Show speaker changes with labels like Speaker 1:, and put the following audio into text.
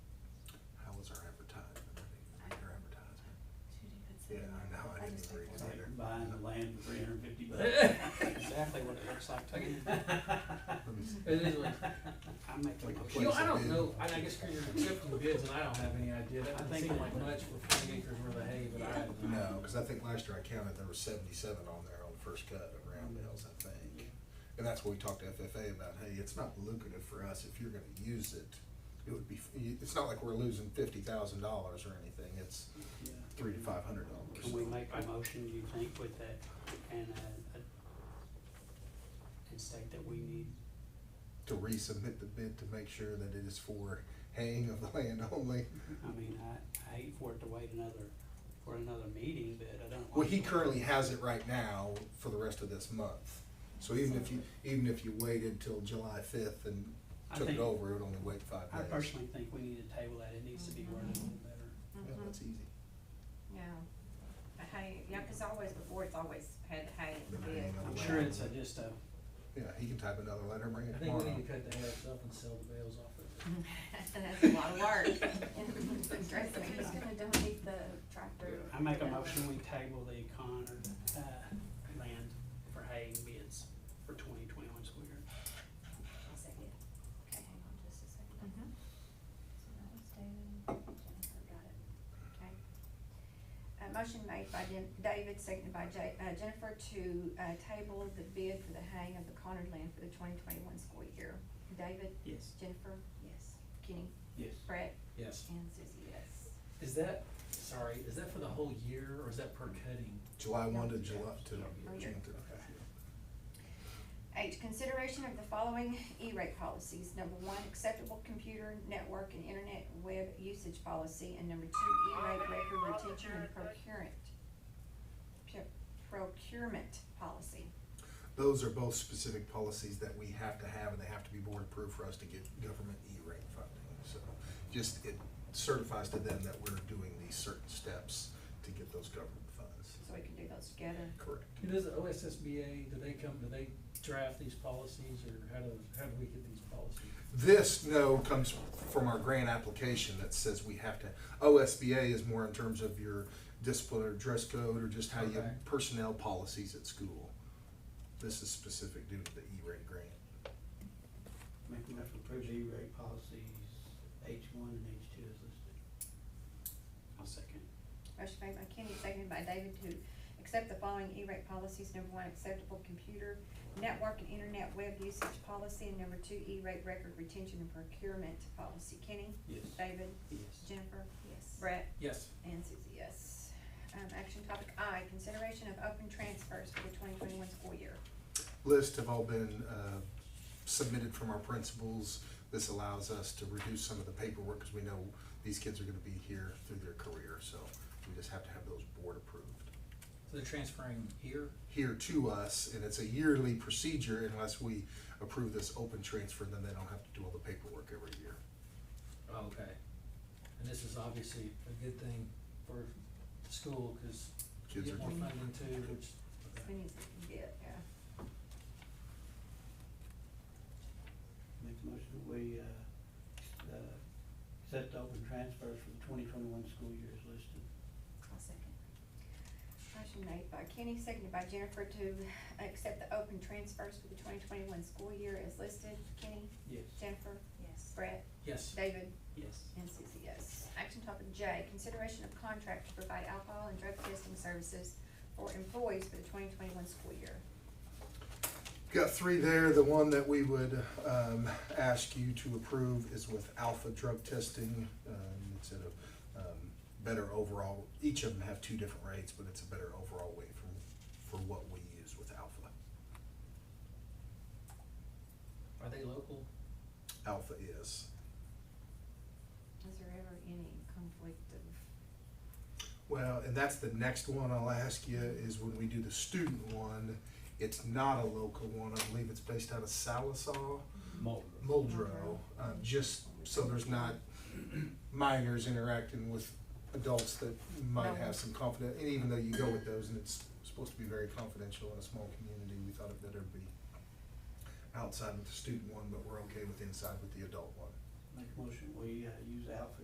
Speaker 1: buying the land for three hundred and fifty bucks.
Speaker 2: That's Exactly what it looks like to me.
Speaker 3: It is like,
Speaker 1: I make like a
Speaker 3: you know,
Speaker 1: place.
Speaker 3: I don't know, I, I guess for your accepting bids, and I don't have any idea, that doesn't seem like much for forty acres worth of hay, but I have no.
Speaker 4: No, because I think last year I counted, there was seventy-seven on there on the first cut of round bales, I think. And that's what we talked to FFA about, hey, it's not lucrative for us if you're gonna use it. It would be, it's not like we're losing fifty thousand dollars or anything, it's
Speaker 1: Yeah.
Speaker 4: three to five hundred dollars.
Speaker 1: Can we make a motion, do you think, with that, and, uh, uh, and state that we need,
Speaker 4: To resubmit the bid to make sure that it is for haying of the land only.
Speaker 1: I mean, I, I hate for it to wait another, for another meeting, but I don't.
Speaker 4: Well,
Speaker 1: want
Speaker 4: he
Speaker 1: to-
Speaker 4: currently has it right now for the rest of this month. So even if you, even if you waited till July fifth and
Speaker 1: I
Speaker 4: took it
Speaker 1: think-
Speaker 4: over, it would only wait five
Speaker 1: I
Speaker 4: days.
Speaker 1: personally think we need to table that, it needs to be worded a little better.
Speaker 4: Yeah,
Speaker 5: Mm-hmm.
Speaker 6: Mhm.
Speaker 4: that's easy.
Speaker 6: Yeah, the hay, yeah, 'cause always before, it's always had the hay in the
Speaker 4: Been hanging
Speaker 6: bid.
Speaker 4: on
Speaker 1: I'm sure it's a, just a,
Speaker 4: Yeah, he can type another letter and bring
Speaker 3: I
Speaker 4: it
Speaker 3: think we
Speaker 4: tomorrow.
Speaker 3: need to cut the hay up and sell the bales off of it.
Speaker 6: That's a lot of work. Trust me.
Speaker 5: Who's gonna donate the tractor?
Speaker 1: I make a motion, we table the Connor, uh, land for hay bids for twenty twenty-one school year.
Speaker 5: I'll second. Okay, hang on just a second.
Speaker 6: Mhm.
Speaker 5: So that was David, Jennifer got it, okay. Uh, motion made by Jen- David, seconded by Ja- uh, Jennifer to, uh, table the bid for the haying of the Conard land for the twenty twenty-one school year. David,
Speaker 1: Yes.
Speaker 5: Jennifer? Yes. Kenny?
Speaker 1: Yes.
Speaker 5: Brett?
Speaker 3: Yes.
Speaker 5: And Susie, yes.
Speaker 3: Is that, sorry, is that for the whole year, or is that per cutting?
Speaker 4: July one to July to
Speaker 5: Oh, yeah.
Speaker 4: June thirty.
Speaker 5: Eight, consideration of the following E-rate policies. Number one, acceptable computer network and internet web usage policy, and number two, E-rate record retention and procurement. pu- Procurement policy.
Speaker 4: Those are both specific policies that we have to have and they have to be board approved for us to get government E-rate funding. So just it certifies to them that we're doing these certain steps to get those government funds.
Speaker 5: So we can do those together.
Speaker 4: Correct.
Speaker 3: Who does the OSSBA, do they come, do they draft these policies, or how do, how do we get these policies?
Speaker 4: This, no, comes from our grant application that says we have to, OSBA is more in terms of your discipline or dress code or just how you,
Speaker 3: Okay.
Speaker 4: personnel policies at school. This is specific due to the E-rate grant.
Speaker 1: Make a motion, approve the E-rate policies, H one and H two is listed. I'll second.
Speaker 5: Motion made by Kenny, seconded by David to accept the following E-rate policies. Number one, acceptable computer network and internet web usage policy, and number two, E-rate record retention and procurement policy. Kenny?
Speaker 1: Yes.
Speaker 5: David?
Speaker 1: Yes.
Speaker 5: Jennifer?
Speaker 6: Yes.
Speaker 5: Brett?
Speaker 3: Yes.
Speaker 5: And Susie, yes. Um, action topic I, consideration of open transfers for the twenty twenty-one school year.
Speaker 4: List have all been uh, submitted from our principals. This allows us to reduce some of the paperwork because we know these kids are gonna be here through their career, so we just have to have those board approved.
Speaker 3: So they're transferring here?
Speaker 4: here to us, and it's a yearly procedure unless we approve this open transfer, then they don't have to do all the paperwork every year.
Speaker 3: Oh, okay. And this is obviously a good thing for the school, cause you
Speaker 4: Kids are
Speaker 3: get more
Speaker 4: doing-
Speaker 3: funding too, which,
Speaker 5: We need to get, yeah.
Speaker 1: Make a motion, that we, uh, uh, accept open transfers for the twenty twenty-one school year is listed.
Speaker 5: I'll second. Motion made by Kenny, seconded by Jennifer to accept the open transfers for the twenty twenty-one school year as listed. Kenny,
Speaker 1: Yes.
Speaker 5: Jennifer,
Speaker 6: Yes.
Speaker 5: Brett,
Speaker 3: yes.
Speaker 5: David,
Speaker 1: Yes.
Speaker 5: and Susie, yes. Action topic J, consideration of contract to provide alcohol and drug testing services for employees for the twenty twenty-one school year.
Speaker 4: Got three there. The one that we would um, ask you to approve is with Alpha Drug Testing. Um, It's at a um, better overall, each of them have two different rates, but it's a better overall rate from, for what we use with Alpha.
Speaker 3: Are they local?
Speaker 4: Alpha is.
Speaker 5: Is there ever any conflict of,
Speaker 4: Well, and that's the next one I'll ask you is when we do the student one, it's not a local one. I believe it's based out of Salisaw, Muldrow, uh, just so there's not minors interacting with adults that might have some confident, and even though you go with those and it's supposed to be very confidential in a small community, we thought it better be outside with the student one, but we're okay with inside with the adult one.
Speaker 1: Make a motion, we, uh, use Alpha